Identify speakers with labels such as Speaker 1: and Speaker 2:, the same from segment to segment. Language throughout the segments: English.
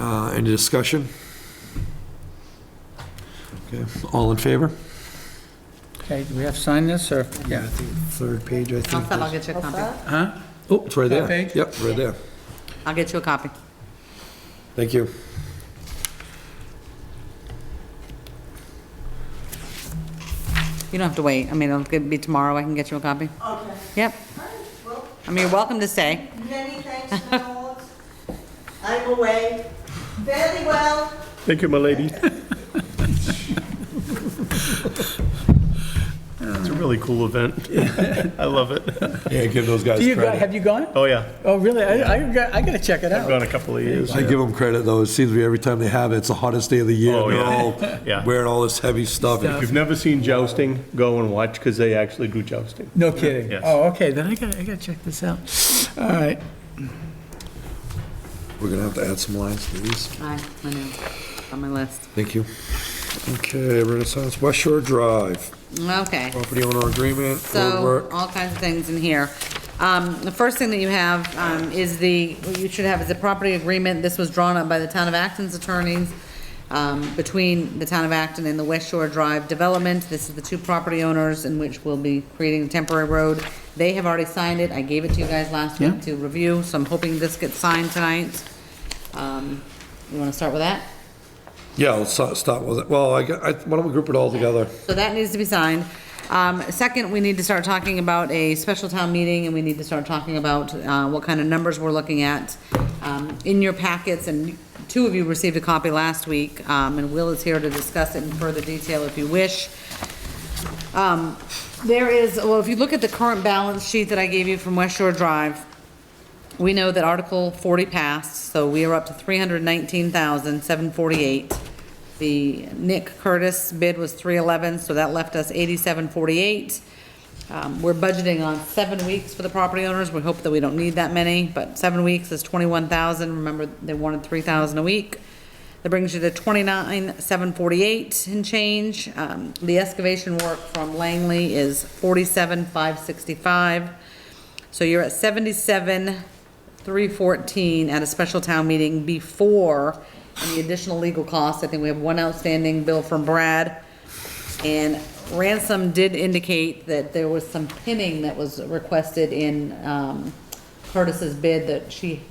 Speaker 1: Uh, Any discussion? Okay, all in favor?
Speaker 2: Okay, do we have to sign this, or, yeah?
Speaker 3: Third page, I
Speaker 4: I'll
Speaker 3: think.
Speaker 4: I'll get you a copy.
Speaker 2: Huh?
Speaker 1: Oh, it's right there.
Speaker 2: That page?
Speaker 1: Yep, right there.
Speaker 4: I'll get you a copy.
Speaker 1: Thank you.
Speaker 4: You don't have to wait. I mean, it'll be tomorrow. I can get you a copy.
Speaker 5: Okay,
Speaker 4: Yep.
Speaker 5: all right, well,
Speaker 4: I mean, you're welcome to stay.
Speaker 5: many thanks, my lords. I'm away. Very well.
Speaker 6: Thank you, my lady. It's a really cool event. I love it.
Speaker 1: Yeah, give those guys
Speaker 2: Do you, go- have you gone?
Speaker 6: Oh, yeah.
Speaker 2: Oh, really? I, I got- I gotta check it
Speaker 6: I've
Speaker 2: out.
Speaker 6: gone a couple of years.
Speaker 1: I give them credit, though. It seems to be every time they have it, it's the hottest day of the year.
Speaker 6: Oh,
Speaker 1: and They're
Speaker 6: yeah.
Speaker 1: all
Speaker 6: Yeah.
Speaker 1: wearing all this heavy stuff.
Speaker 6: If you've never seen jousting, go and watch because they actually do jousting.
Speaker 2: No kidding?
Speaker 6: Yes.
Speaker 2: Oh, okay, then I gotta, I gotta check this out. All right.
Speaker 1: We're gonna have to add some lines to these.
Speaker 4: I, I know. On my list.
Speaker 1: Thank you.
Speaker 3: Okay, Renaissance West Shore Drive,
Speaker 4: Okay.
Speaker 3: property owner agreement, road
Speaker 4: So,
Speaker 3: work.
Speaker 4: all kinds of things in here. Um, The first thing that you have um, is the, what you should have is the property agreement. This was drawn up by the Town of Acton's attorneys um, between the Town of Acton and the West Shore Drive Development. This is the two property owners in which we'll be creating a temporary road. They have already signed it. I gave it to you guys last week
Speaker 2: Yeah.
Speaker 4: to review, so I'm hoping this gets signed tonight. Um, You want to start with that?
Speaker 1: Yeah, let's start start with it. Well, I, got- I- why don't we group it all together?
Speaker 4: So that needs to be signed. Um, Second, we need to start talking about a special town meeting, and we need to start talking about uh, what kind of numbers we're looking at. Um, In your packets, and two of you received a copy last week, um, and Will is here to discuss it in further detail if you wish. Um, There is, well, if you look at the current balance sheet that I gave you from West Shore Drive, we know that Article 40 passed, so we are up to 319,748. The Nick Curtis bid was 311, so that left us 8748. Um, We're budgeting on seven weeks for the property owners. We hope that we don't need that many, but seven weeks is 21,000. Remember, they wanted 3,000 a week. That brings you to 29,748 and change. Um, The excavation work from Langley is 47,565. So you're at seventy-seven, three fourteen at a special town meeting before any additional legal costs. I think we have one outstanding bill from Brad. And Ransom did indicate that there was some pinning that was requested in um, Curtis's bid that she,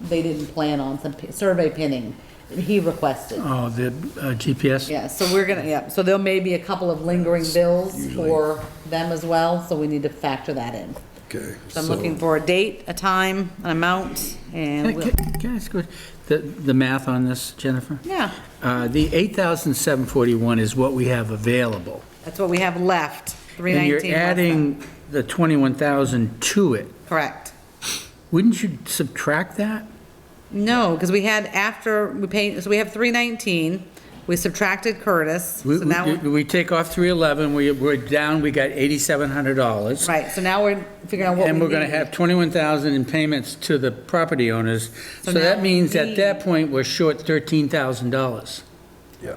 Speaker 4: they didn't plan on, some pi- survey pinning that he requested.
Speaker 2: Oh, the uh, GPS?
Speaker 4: Yeah, so we're gonna, yeah, so there may be a couple of lingering bills for them as well, so we need to factor that in.
Speaker 1: Okay.
Speaker 4: So I'm looking for a date, a time, an amount, and
Speaker 2: Can I-
Speaker 4: we'll,
Speaker 2: can- can I ask, a que- the, the math on this, Jennifer?
Speaker 4: yeah,
Speaker 2: Uh, The 8,741 is what we have available.
Speaker 4: that's what we have left, three
Speaker 2: And
Speaker 4: nineteen.
Speaker 2: you're adding the 21,000 to it.
Speaker 4: Correct.
Speaker 2: Wouldn't you subtract that?
Speaker 4: No, because we had after, we paid, so we have three nineteen, we subtracted Curtis, so
Speaker 2: We-
Speaker 4: now,
Speaker 2: We
Speaker 4: we're-
Speaker 2: we take off 311, we- we're down, we got $8,700.
Speaker 4: right, so now we're figuring out what we
Speaker 2: And we're going to
Speaker 4: need.
Speaker 2: have 21,000 in payments to the property owners.
Speaker 4: So
Speaker 2: So that
Speaker 4: now
Speaker 2: means at
Speaker 4: we-
Speaker 2: that point, we're short $13,000.
Speaker 1: Yeah.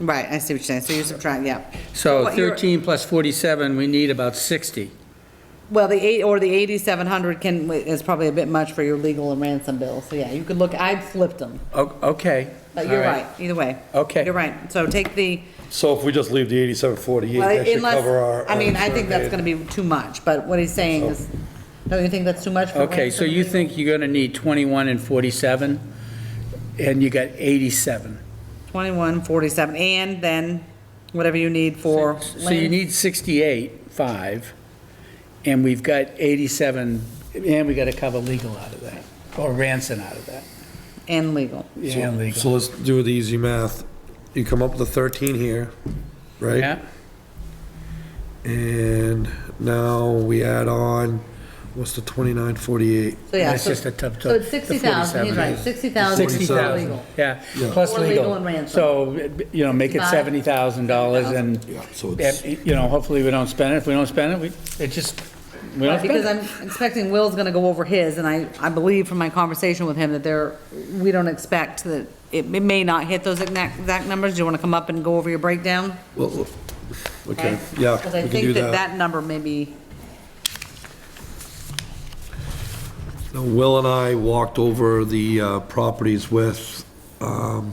Speaker 4: Right, I see what you're saying, so you subtract, yeah.
Speaker 2: So
Speaker 4: what you're-
Speaker 2: 13 plus 47, we need about 60.
Speaker 4: Well, the eight, or the eighty-seven hundred can, is probably a bit much for your legal and ransom bill, so yeah, you could look, I flipped them,
Speaker 2: O- Okay.
Speaker 4: but you're
Speaker 2: all
Speaker 4: right, either way.
Speaker 2: Okay.
Speaker 4: You're right, so take the.
Speaker 1: So if we just leave the eighty-seven forty-eight,
Speaker 4: Well,
Speaker 1: that should
Speaker 4: unless-
Speaker 1: cover our.
Speaker 4: I mean,
Speaker 1: our
Speaker 4: I think that's
Speaker 1: survey.
Speaker 4: gonna be too much, but what he's saying is, don't you think that's too much? for
Speaker 2: Okay, so
Speaker 4: Ransom?
Speaker 2: you think you're going to need 21 and 47, and you got 87.
Speaker 4: Twenty-one, forty-seven, and then whatever you need for.
Speaker 2: So you
Speaker 4: land.
Speaker 2: need 68, 5, and we've got 87, and we got to cover legal out of that, or ransom out of that,
Speaker 4: And legal.
Speaker 2: and legal.
Speaker 1: So let's do the easy math. You come up with a thirteen here, right?
Speaker 2: Yeah,
Speaker 1: And now we add on, what's the twenty-nine forty-eight?
Speaker 4: So yeah,
Speaker 2: That's
Speaker 4: so,
Speaker 2: just a tough-
Speaker 4: so it's
Speaker 2: the
Speaker 4: sixty thousand, he's
Speaker 2: 47.
Speaker 4: right, sixty thousand
Speaker 1: Sixty
Speaker 4: for
Speaker 1: thousand.
Speaker 4: legal.
Speaker 2: yeah,
Speaker 1: Yeah.
Speaker 2: plus
Speaker 4: Or
Speaker 2: legal.
Speaker 4: legal and ransom.
Speaker 2: So, you know, make it
Speaker 4: Five.
Speaker 2: $70,000, and,
Speaker 1: Yeah, so it's,
Speaker 2: and, you know, hopefully we don't spend it. If we don't spend it, we, it just, we don't
Speaker 4: Because
Speaker 2: spend it.
Speaker 4: I'm expecting Will's gonna go over his, and I, I believe from my conversation with him that there, we don't expect that, it it may not hit those exact, exact numbers. Do you wanna come up and go over your breakdown?
Speaker 1: well, okay, yeah,
Speaker 4: Because
Speaker 1: we
Speaker 4: I
Speaker 1: can do
Speaker 4: think that
Speaker 1: that.
Speaker 4: that number may be.
Speaker 1: Now, Will and I walked over the uh, properties with, um,